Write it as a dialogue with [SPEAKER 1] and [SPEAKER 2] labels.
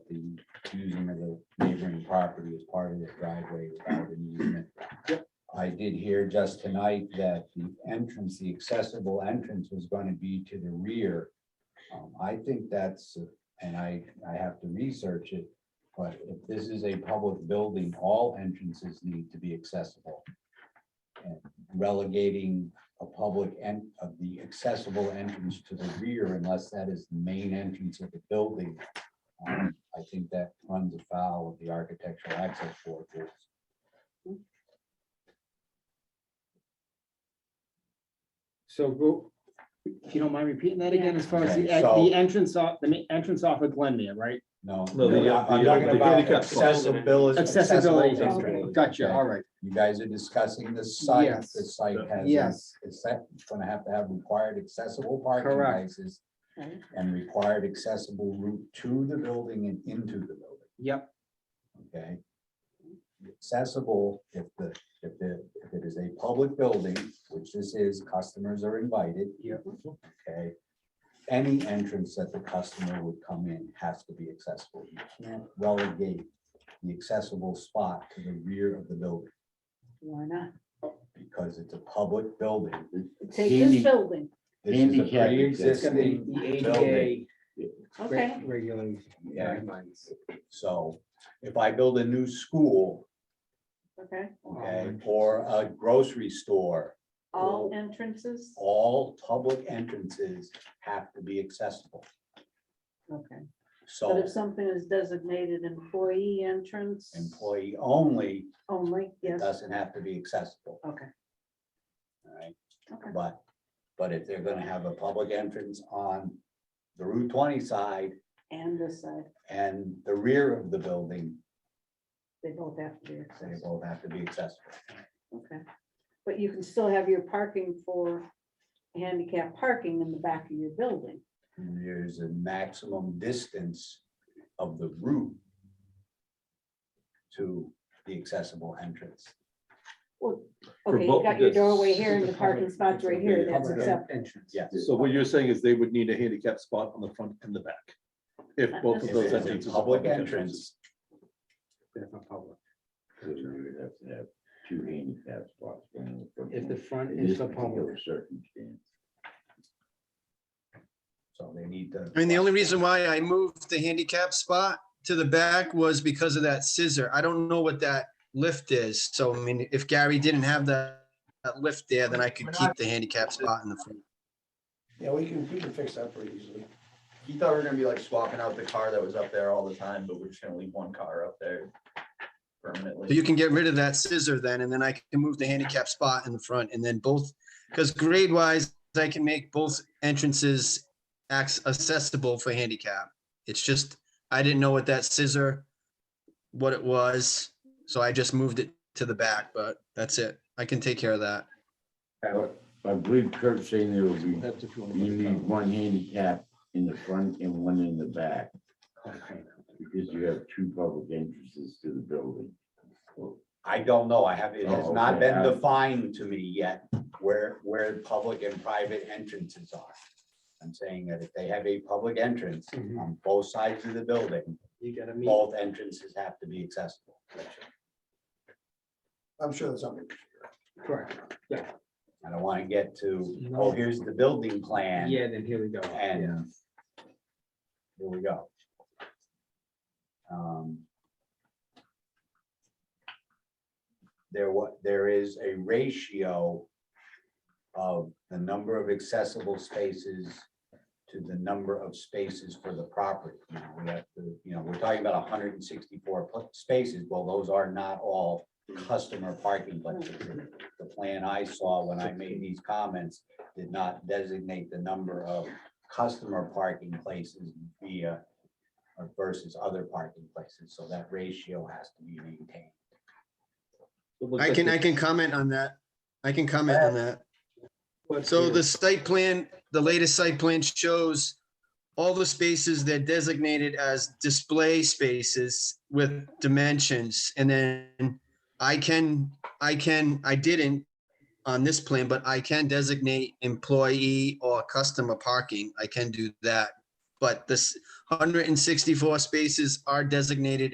[SPEAKER 1] of the neighboring property as part of the driveway without an easement. I did hear just tonight that the entrance, the accessible entrance was going to be to the rear. Um, I think that's, and I, I have to research it, but if this is a public building, all entrances need to be accessible. And Relegating a public and of the accessible entrance to the rear unless that is the main entrance of the building. um, I think that runs afoul of the architectural access board rules.
[SPEAKER 2] So go, if you don't mind repeating that again, as far as the,
[SPEAKER 1] Okay, so-
[SPEAKER 2] the entrance off, the ma- entrance off of Glenmere, right?
[SPEAKER 1] No,
[SPEAKER 3] No, the,
[SPEAKER 1] no,
[SPEAKER 3] uh,
[SPEAKER 1] I'm
[SPEAKER 3] the, uh,
[SPEAKER 1] talking
[SPEAKER 3] the
[SPEAKER 1] about
[SPEAKER 3] handicap spot.
[SPEAKER 1] accessibility.
[SPEAKER 2] Accessibility,
[SPEAKER 1] accessible
[SPEAKER 2] okay,
[SPEAKER 1] entrance.
[SPEAKER 2] gotcha,
[SPEAKER 1] Okay.
[SPEAKER 2] all right,
[SPEAKER 1] You guys are discussing the site,
[SPEAKER 2] Yes.
[SPEAKER 1] the site has.
[SPEAKER 2] yes,
[SPEAKER 1] It's that, it's gonna have to have required accessible parking
[SPEAKER 2] Correct.
[SPEAKER 1] places
[SPEAKER 4] Right.
[SPEAKER 1] and required accessible route to the building and into the building.
[SPEAKER 2] yep,
[SPEAKER 1] okay? Accessible, if the, if the, if it is a public building, which this is, customers are invited.
[SPEAKER 2] Yep.
[SPEAKER 1] Okay, any entrance that the customer would come in has to be accessible. You can't relegate the accessible spot to the rear of the building
[SPEAKER 4] Why not?
[SPEAKER 1] because it's a public building.
[SPEAKER 4] Take
[SPEAKER 1] Handy-
[SPEAKER 4] this building,
[SPEAKER 1] This is a
[SPEAKER 5] Handicap
[SPEAKER 2] it's gonna be
[SPEAKER 1] pre-existing
[SPEAKER 2] the
[SPEAKER 1] building.
[SPEAKER 2] ADA
[SPEAKER 4] okay.
[SPEAKER 2] reg- regulations.
[SPEAKER 1] Yeah.
[SPEAKER 2] guidelines.
[SPEAKER 1] So if I build a new school,
[SPEAKER 4] Okay,
[SPEAKER 1] okay, or a grocery store,
[SPEAKER 4] all
[SPEAKER 1] Cool.
[SPEAKER 4] entrances,
[SPEAKER 1] all public entrances have to be accessible.
[SPEAKER 4] okay. But
[SPEAKER 1] So
[SPEAKER 4] if something is designated employee entrance
[SPEAKER 1] employee only
[SPEAKER 4] only, yes,
[SPEAKER 1] doesn't have to be accessible,
[SPEAKER 4] okay,
[SPEAKER 1] all right?
[SPEAKER 4] okay.
[SPEAKER 1] But, but if they're gonna have a public entrance on the Route twenty side
[SPEAKER 4] And this side,
[SPEAKER 1] and the rear of the building,
[SPEAKER 4] they both have to be
[SPEAKER 1] they
[SPEAKER 4] accessible,
[SPEAKER 1] both have to be accessible.
[SPEAKER 4] okay. But you can still have your parking for handicap parking in the back of your building.
[SPEAKER 1] There's a maximum distance of the route to the accessible entrance.
[SPEAKER 4] Well,
[SPEAKER 3] For
[SPEAKER 4] okay, you
[SPEAKER 3] both-
[SPEAKER 4] got your
[SPEAKER 3] that's-
[SPEAKER 4] doorway here and
[SPEAKER 2] The
[SPEAKER 4] the parking
[SPEAKER 2] public-
[SPEAKER 4] spots right here,
[SPEAKER 2] the
[SPEAKER 4] that's
[SPEAKER 2] public
[SPEAKER 4] acceptable.
[SPEAKER 2] Entrance.
[SPEAKER 1] Yes.
[SPEAKER 3] So what you're saying is they would need a handicap spot on the front and the back. If both of
[SPEAKER 1] If
[SPEAKER 3] those
[SPEAKER 1] it's a
[SPEAKER 3] entrances. are
[SPEAKER 1] Public entrance,
[SPEAKER 2] That's not public.
[SPEAKER 5] So you would have to have two handicap spots. down the front
[SPEAKER 2] If the
[SPEAKER 5] one.
[SPEAKER 2] front
[SPEAKER 5] In
[SPEAKER 2] is
[SPEAKER 5] this
[SPEAKER 2] the
[SPEAKER 5] particular
[SPEAKER 2] public,
[SPEAKER 5] circumstance.
[SPEAKER 1] so they need to.
[SPEAKER 6] I mean, the only reason why I moved the handicap spot to the back was because of that scissor. I don't know what that lift is. So I mean, if Gary didn't have that, that lift there, then I could keep the handicap spot in the front.
[SPEAKER 7] Yeah, we can, we can fix that pretty easily. He thought we were gonna be like swapping out the car that was up there all the time, but we're just gonna leave one car up there
[SPEAKER 6] So
[SPEAKER 7] permanently.
[SPEAKER 6] you can get rid of that scissor then, and then I can move the handicap spot in the front and then both, because grade wise, I can make both entrances acts accessible for handicap. It's just, I didn't know what that scissor, what it was, so I just moved it to the back, but that's it. I can take care of that.
[SPEAKER 5] I believe Kurt's saying there will be,
[SPEAKER 3] That's if you want to.
[SPEAKER 5] you need one handicap in the front and one in the back, because you have two public entrances to the building.
[SPEAKER 1] I don't know. I have, it has
[SPEAKER 5] Oh,
[SPEAKER 1] not been
[SPEAKER 5] okay.
[SPEAKER 1] defined to me yet where, where public and private entrances are. I'm saying that if they have a public entrance
[SPEAKER 7] Mm-hmm.
[SPEAKER 2] Mhm.
[SPEAKER 1] on both sides of the building,
[SPEAKER 2] You gotta meet.
[SPEAKER 1] both entrances have to be accessible.
[SPEAKER 7] I'm sure that's something.
[SPEAKER 2] Correct.
[SPEAKER 1] I don't want to get to, oh, here's the building plan.
[SPEAKER 2] Yeah, then here we go. Yeah.
[SPEAKER 1] And here we go. Um, There what, there is a ratio of the number of accessible spaces to the number of spaces for the property. Now, we have to, you know, we're talking about hundred and sixty-four spaces. Well, those are not all customer parking places. The plan I saw when I made these comments did not designate the number of customer parking places via uh, versus other parking places, so that ratio has to be maintained.
[SPEAKER 3] It looks
[SPEAKER 6] I
[SPEAKER 3] like
[SPEAKER 6] can,
[SPEAKER 3] the-
[SPEAKER 6] I can comment on that. I can comment on that.
[SPEAKER 2] But
[SPEAKER 6] So
[SPEAKER 2] here-
[SPEAKER 6] the site plan, the latest site plan shows all the spaces that designated as display spaces with dimensions. And then I can, I can, I didn't on this plan, but I can designate employee or customer parking. I can do that. But this hundred and sixty-four spaces are designated